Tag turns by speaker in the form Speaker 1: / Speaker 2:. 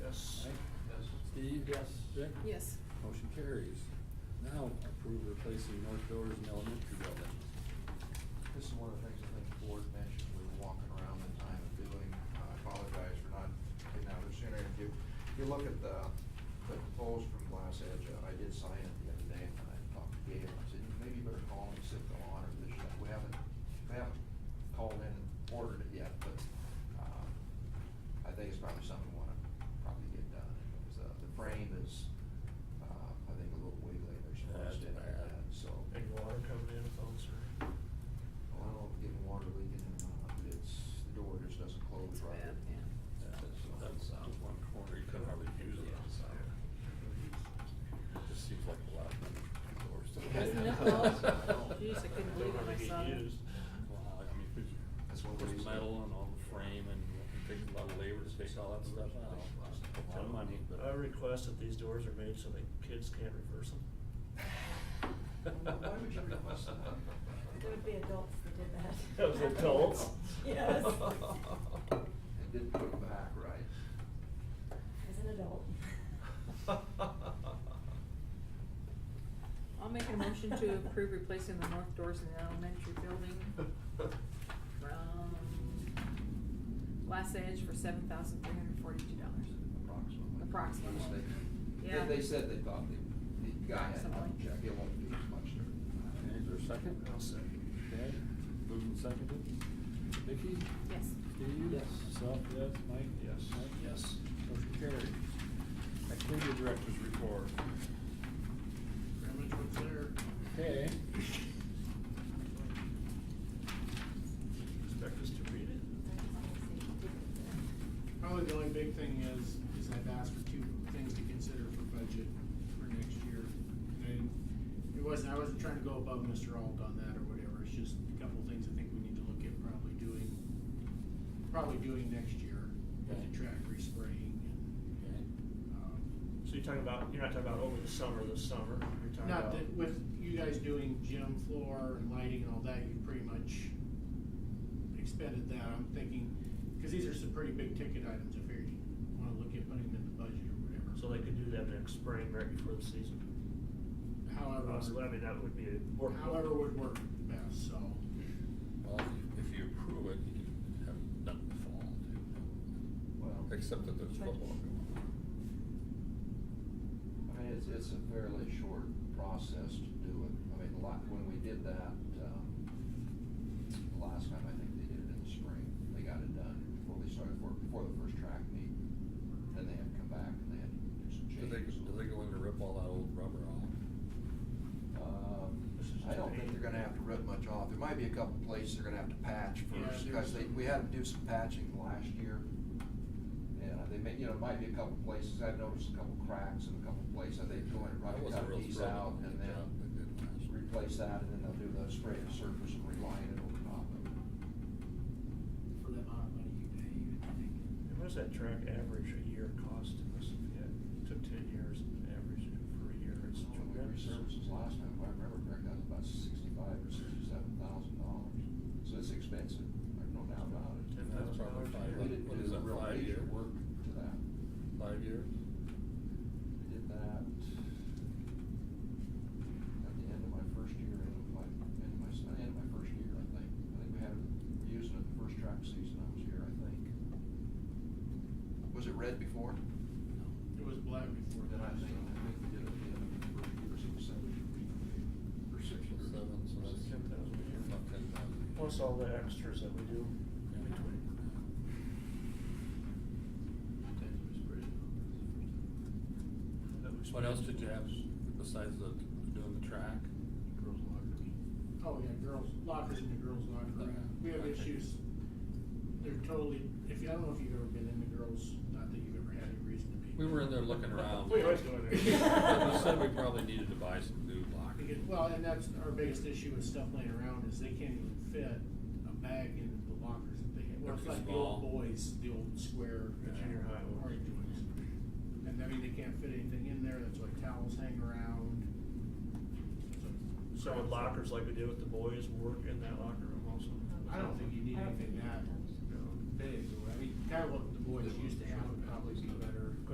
Speaker 1: Deeb?
Speaker 2: Yes.
Speaker 1: Bick?
Speaker 3: Yes.
Speaker 1: Motion carries. Now approve replacing north doors in elementary building.
Speaker 4: This is one of the things I think the board mentioned, we were walking around the time of doing, I apologize for not getting out there sooner. If you, if you look at the, the proposal from Glass Edge, uh, I did sign it the other day, and I talked to Gail, I said, maybe you better call and sit the honor this year. We haven't, we haven't called in and ordered it yet, but, uh, I think it's probably something we wanna probably get done. Because, uh, the frame is, uh, I think a little wiggly, there's some rust
Speaker 1: That's
Speaker 4: in it,
Speaker 1: bad.
Speaker 4: and so.
Speaker 2: Big water coming in, folks are.
Speaker 4: Well, I don't know if getting water leaking or not, but it's, the door just doesn't close
Speaker 3: It's
Speaker 4: right.
Speaker 3: bad, yeah.
Speaker 1: That's out one corner, you can hardly use it outside. Just seems like a lot of doors. to-
Speaker 3: Isn't it though? Jeez, I couldn't believe it when I saw it.
Speaker 1: Wow, I mean, there's,
Speaker 4: That's one
Speaker 1: there's
Speaker 4: reason.
Speaker 1: metal and all the frame and it takes a lot of labor to take all that stuff out. A lot of money, but.
Speaker 2: I request that these doors are made so that kids can't reverse them.
Speaker 4: Why would you request that?
Speaker 5: There would be adults that did that.
Speaker 2: That was adults?
Speaker 5: Yes.
Speaker 4: It didn't put it back right.
Speaker 5: As an adult.
Speaker 3: I'll make a motion to approve replacing the north doors in the elementary building from Last Edge for seven thousand three hundred forty-two dollars.
Speaker 4: Approximately.
Speaker 3: Approximately.
Speaker 4: Yes, they-
Speaker 3: Yeah.
Speaker 4: They, they said they thought the, the guy had done
Speaker 3: Approximately.
Speaker 4: a check, it won't be as much there.
Speaker 1: Okay, Is there a second?
Speaker 2: I'll second.
Speaker 1: Okay, moved and seconded. Vicky?
Speaker 3: Yes.
Speaker 1: Steve?
Speaker 4: Yes.
Speaker 1: Myself, yes. Mike?
Speaker 2: Yes.
Speaker 1: Mike?
Speaker 2: Yes.
Speaker 1: Motion carried. Activity Director's Report.
Speaker 2: Pretty much what's there.
Speaker 1: Okay.
Speaker 2: Expect us to read it?
Speaker 6: Probably the only big thing is, is I've asked for two things to consider for budget for next year. And it wasn't, I wasn't trying to go above Mr. Alt on that or whatever, it's just a couple things I think we need to look at probably doing, probably doing next year.
Speaker 1: Okay.
Speaker 6: The track respraying and,
Speaker 1: Okay.
Speaker 6: um,
Speaker 2: So you're talking about, you're not talking about over the summer, this summer, you're talking
Speaker 6: not
Speaker 2: about.
Speaker 6: that, with you guys doing gym floor and lighting and all that, you pretty much expended that, I'm thinking, cause these are some pretty big ticket items, I figured you wanna look at putting them in the budget or whatever.
Speaker 2: So they could do that next spring, right before the season.
Speaker 6: However,
Speaker 2: Possibly, I mean, that would be a. work-
Speaker 6: however would work the best, so.
Speaker 1: Well, if you approve it, you can have it done in the fall
Speaker 4: Well.
Speaker 1: too. Except that there's football going on.
Speaker 4: I mean, it's, it's a fairly short process to do it. I mean, a lot, when we did that, um, the last time, I think they did it in the spring. They got it done before they started, for- before the first track meet. Then they had to come back and they had to do some
Speaker 1: Do
Speaker 4: changes.
Speaker 1: they, do they go in to rip all that old rubber off?
Speaker 4: Um, I don't think they're gonna have to rip much off. There might be a couple places they're gonna have to patch
Speaker 6: Yeah,
Speaker 4: first,
Speaker 6: there's-
Speaker 4: because they, we had to do some patching last year. And they may, you know, might be a couple places, I've noticed a couple cracks in a couple places, I think going
Speaker 1: I
Speaker 4: right,
Speaker 1: wasn't
Speaker 4: cut
Speaker 1: real
Speaker 4: these
Speaker 1: thrilled
Speaker 4: out
Speaker 1: with
Speaker 4: and
Speaker 1: the
Speaker 4: then
Speaker 1: job they did last year.
Speaker 4: replace that, and then they'll do the spray of surface and reline it over top of it.
Speaker 6: For the amount of money you pay, you would think.
Speaker 2: And What does that track average a year cost to us? If you had- Took ten years and averaged it for a year, it's
Speaker 4: When we
Speaker 2: tremendous.
Speaker 4: resurfaced last time, if I remember correctly, that was about sixty-five or sixty-seven thousand dollars. So it's expensive, there's no doubt about it.
Speaker 2: Ten
Speaker 1: And that's probably
Speaker 2: thousand
Speaker 1: fine.
Speaker 2: dollars a
Speaker 4: We
Speaker 2: year.
Speaker 4: didn't
Speaker 1: What
Speaker 4: do
Speaker 1: is
Speaker 4: the
Speaker 1: that,
Speaker 4: real
Speaker 1: five
Speaker 4: major
Speaker 1: year?
Speaker 4: work to that.
Speaker 1: Five years?
Speaker 4: We did that at the end of my first year, end of my, end of my, s- end of my first year, I think. I think we had, it- we used it the first track season I was here, I think. Was it red before?
Speaker 6: It was black before
Speaker 4: Or then
Speaker 6: that,
Speaker 4: I
Speaker 6: so.
Speaker 4: think, I think we did it at the end of the first year, so it was seven, or six
Speaker 1: Six
Speaker 4: or
Speaker 1: or seven, so that's
Speaker 2: Ten thousand a year.
Speaker 1: About ten thousand.
Speaker 2: Plus all the extras that we do in between. That we
Speaker 1: What
Speaker 2: spend.
Speaker 1: else did you have besides the, doing the track?
Speaker 4: Girls lockers.
Speaker 6: Oh, yeah, girls, lockers in the girls locker room.
Speaker 1: Yeah.
Speaker 6: We have
Speaker 1: Okay.
Speaker 6: issues, they're totally, if, you- I don't know if you've ever been in the girls, not that you've ever had any reason to be.
Speaker 1: We were in there looking around.
Speaker 2: We always go in there.
Speaker 1: We said we probably needed to buy some new
Speaker 6: Because,
Speaker 1: lockers.
Speaker 6: well, and that's our biggest issue with stuff laying around is they can't even fit a bag in the lockers that they have. Well, it's
Speaker 1: They're too
Speaker 6: like the old
Speaker 1: small.
Speaker 6: boys, the old square.
Speaker 2: The
Speaker 6: uh,
Speaker 2: junior high ones.
Speaker 6: orange ones. And I mean, they can't fit anything in there, that's why towels hang around. It's a
Speaker 2: So
Speaker 6: crap
Speaker 2: with
Speaker 6: show.
Speaker 2: lockers like we did with the boys, work in that locker room also.
Speaker 6: I don't think you need anything that
Speaker 2: No.
Speaker 6: big, I mean, kind of what the boys used to